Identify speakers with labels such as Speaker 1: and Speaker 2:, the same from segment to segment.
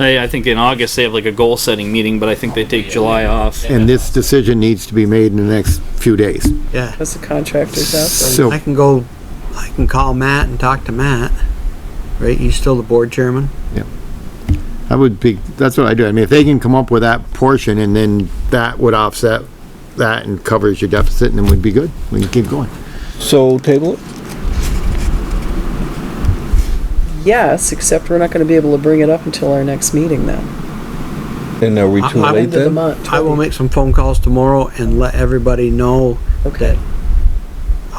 Speaker 1: I, I think in August they have like a goal setting meeting, but I think they take July off.
Speaker 2: And this decision needs to be made in the next few days.
Speaker 3: Yeah.
Speaker 4: That's the contractors out
Speaker 2: So-
Speaker 3: I can go, I can call Matt and talk to Matt. Right? You still the board chairman?
Speaker 2: I would be, that's what I do. I mean, if they can come up with that portion and then that would offset that and covers your deficit and then we'd be good. We can keep going.
Speaker 5: So table it?
Speaker 4: there. Yes, except we're not gonna be able to bring it up until our next meeting then,
Speaker 5: And are we
Speaker 3: I-
Speaker 5: too
Speaker 3: I will
Speaker 5: late
Speaker 4: end of the
Speaker 5: then?
Speaker 4: month.
Speaker 3: I will make some phone calls tomorrow and let everybody know
Speaker 4: Okay,
Speaker 3: that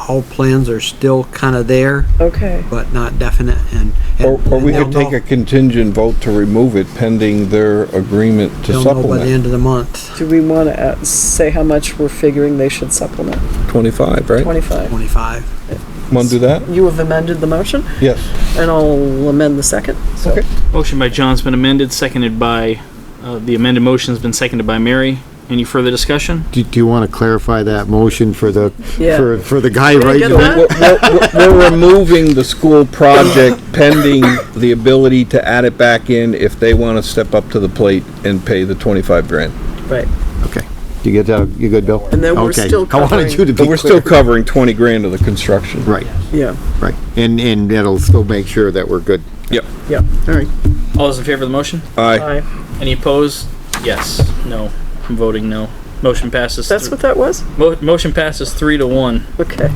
Speaker 3: all plans are still kind of there,
Speaker 4: okay.
Speaker 3: but not definite and. and-
Speaker 5: Or, or we
Speaker 3: and
Speaker 5: could
Speaker 3: they'll
Speaker 5: take
Speaker 3: know-
Speaker 5: a contingent vote to remove it pending their agreement to
Speaker 3: They'll know by the
Speaker 5: supplement.
Speaker 3: end of the month,
Speaker 4: Do we wanna uh, say how much we're figuring they should supplement?
Speaker 5: Twenty-five, right?
Speaker 4: Twenty-five?
Speaker 3: twenty-five.
Speaker 5: Want to do that?
Speaker 4: You have amended the motion,
Speaker 5: Yes.
Speaker 4: and I'll amend the second, so.
Speaker 5: Okay.
Speaker 1: Motion by John's been amended, seconded by, uh, the amended motion's been seconded by Mary. Any further discussion?
Speaker 2: Do, do you want to clarify that motion for the,
Speaker 4: Yeah.
Speaker 2: for, for the guy
Speaker 4: I
Speaker 2: right?
Speaker 4: get
Speaker 2: now?
Speaker 4: that?
Speaker 5: We're, we're- we're removing the school project pending the ability to add it back in if they want to step up to the plate and pay the twenty-five grand.
Speaker 4: Right.
Speaker 2: Okay. You get that? You good, Bill?
Speaker 4: And then we're
Speaker 2: Okay.
Speaker 4: still
Speaker 2: I wanted you to be
Speaker 5: But we're still
Speaker 2: clear.
Speaker 5: covering twenty grand of the construction.
Speaker 2: Right,
Speaker 4: Yeah,
Speaker 2: right. And, and it'll still make sure that we're good.
Speaker 5: Yep.
Speaker 4: yeah, all right.
Speaker 1: All those in favor of the motion?
Speaker 5: Aye.
Speaker 4: Aye.
Speaker 1: Any opposed? Yes, no. I'm voting no. Motion passes.
Speaker 4: That's
Speaker 1: thr-
Speaker 4: what that was?
Speaker 1: Mo- motion passes three to one.
Speaker 4: Okay.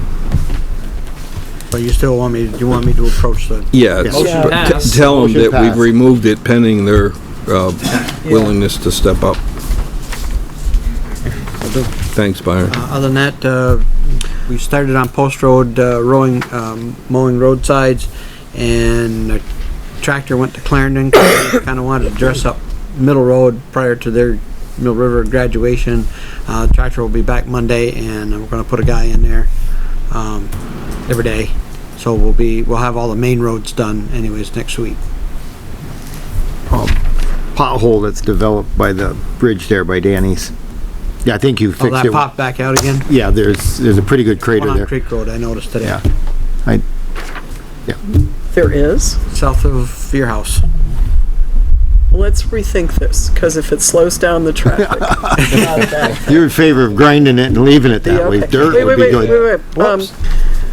Speaker 3: But you still want me, you want me to approach the,
Speaker 5: Yeah.
Speaker 2: it's-
Speaker 4: Motion
Speaker 5: but t-
Speaker 1: passed.
Speaker 5: Tell them
Speaker 2: Motion
Speaker 5: that we've
Speaker 2: passed.
Speaker 5: removed it pending their, uh, willingness to step up. Thanks, Byron.
Speaker 3: uh, other than that, uh, we started on Post Road, uh, rowing, um, mowing roadsides and the tractor went to Clarendon, kinda wanted to dress up Middle Road prior to their Mill River graduation. Uh, tractor will be back Monday and we're gonna put a guy in there, um, every day. So we'll be, we'll have all the main roads done anyways next week.
Speaker 2: Pothole that's developed by the bridge there by Danny's. Yeah, I think you
Speaker 3: Oh,
Speaker 2: fixed
Speaker 3: that
Speaker 2: it.
Speaker 3: popped back out again?
Speaker 2: Yeah, there's, there's a pretty good
Speaker 3: One
Speaker 2: crater
Speaker 3: on
Speaker 2: there.
Speaker 3: Creek Road, I noticed today,
Speaker 2: Yeah. I,
Speaker 4: There is.
Speaker 3: south of your house.
Speaker 4: Let's rethink this, because if it slows down the traffic. not a bad
Speaker 2: You're in favor of grinding it and leaving it that way.
Speaker 4: Okay.
Speaker 2: Dirt
Speaker 4: Wait,
Speaker 2: would be
Speaker 4: wait, wait,
Speaker 2: good.
Speaker 4: wait, wait. Um,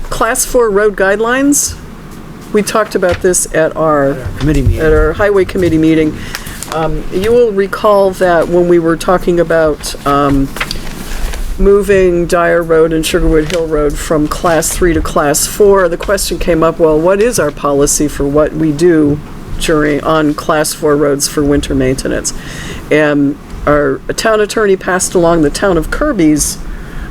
Speaker 4: Class four road guidelines, we talked about this at our,
Speaker 3: Committee meeting.
Speaker 4: at our highway committee meeting. Um, you will recall that when we were talking about, um, moving Dyer Road and Sugarwood Hill Road from class three to class four, the question came up, well, what is our policy for what we do during, on class four roads for winter maintenance? And our town attorney passed along the town of Kirby's,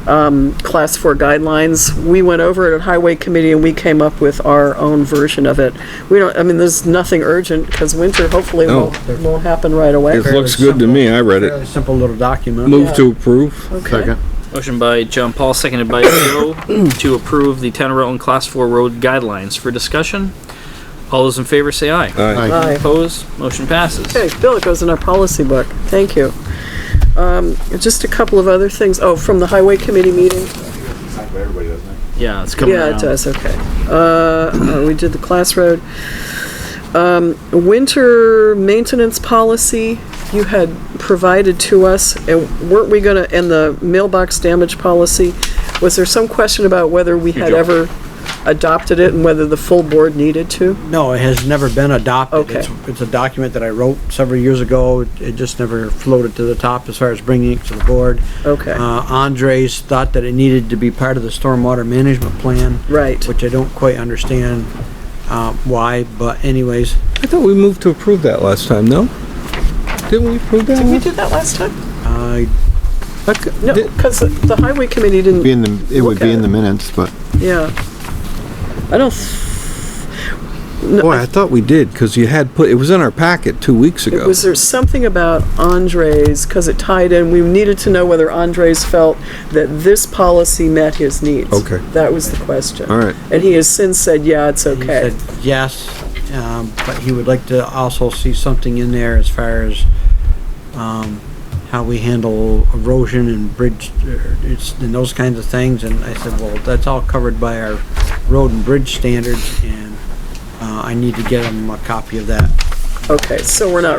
Speaker 4: um, class four guidelines. We went over it at highway committee and we came up with our own version of it. We don't, I mean, there's nothing urgent because winter hopefully
Speaker 5: No.
Speaker 4: won't, won't happen right away.
Speaker 5: It looks good to me, I read
Speaker 3: Fairly
Speaker 5: it.
Speaker 3: simple little document.
Speaker 5: Move to approve.
Speaker 4: Okay.
Speaker 2: Second.
Speaker 1: Motion by John Paul, seconded by Joe, to approve the town of Rutland Class 4 road guidelines for discussion. All those in favor say aye.
Speaker 5: Aye.
Speaker 2: Aye.
Speaker 4: Aye.
Speaker 1: Opposed? Motion passes.
Speaker 4: Okay, Bill, it goes in our policy book. Thank you. Um, just a couple of other things. Oh, from the highway committee meeting.
Speaker 1: Yeah, it's coming
Speaker 4: Yeah,
Speaker 1: around.
Speaker 4: it does, okay. Uh, uh, we did the class road. Um, winter maintenance policy you had provided to us, and weren't we gonna, and the mailbox damage policy, was there some question about whether we had
Speaker 1: job.
Speaker 4: ever adopted it and whether the full board needed to?
Speaker 3: No, it has never been adopted.
Speaker 4: Okay.
Speaker 3: It's- It's a document that I wrote several years ago. It just never floated to the top as far as bringing it to the board.
Speaker 4: Okay,
Speaker 3: Uh, Andres thought that it needed to be part of the stormwater management plan,
Speaker 4: right.
Speaker 3: which I don't quite understand, uh, why, but anyways,
Speaker 5: I thought we moved to approve that last time, no? Didn't we approve that?
Speaker 4: Did we
Speaker 5: last-
Speaker 4: do that last time?
Speaker 3: I
Speaker 5: I c-
Speaker 4: No,
Speaker 5: did-
Speaker 4: because the highway committee didn't.
Speaker 2: Be in the, it would be in the minutes, but,
Speaker 4: Yeah. I don't, th- No,
Speaker 5: Boy, I thought we did, because you had put, it was in our packet two weeks
Speaker 4: it
Speaker 5: ago.
Speaker 4: was there something about Andres, because it tied in, we needed to know whether Andres felt that this policy met his needs.
Speaker 5: Okay.
Speaker 4: That was the question.
Speaker 5: All right.
Speaker 4: And he has since said, yeah, it's
Speaker 3: He
Speaker 4: okay.
Speaker 3: said yes, um, but he would like to also see something in there as far as, um, how we handle erosion and bridge, er, it's, and those kinds of things, and I said, well, that's all covered by our road and bridge standards, and, uh, I need to get him a copy of that.
Speaker 4: Okay, so we're not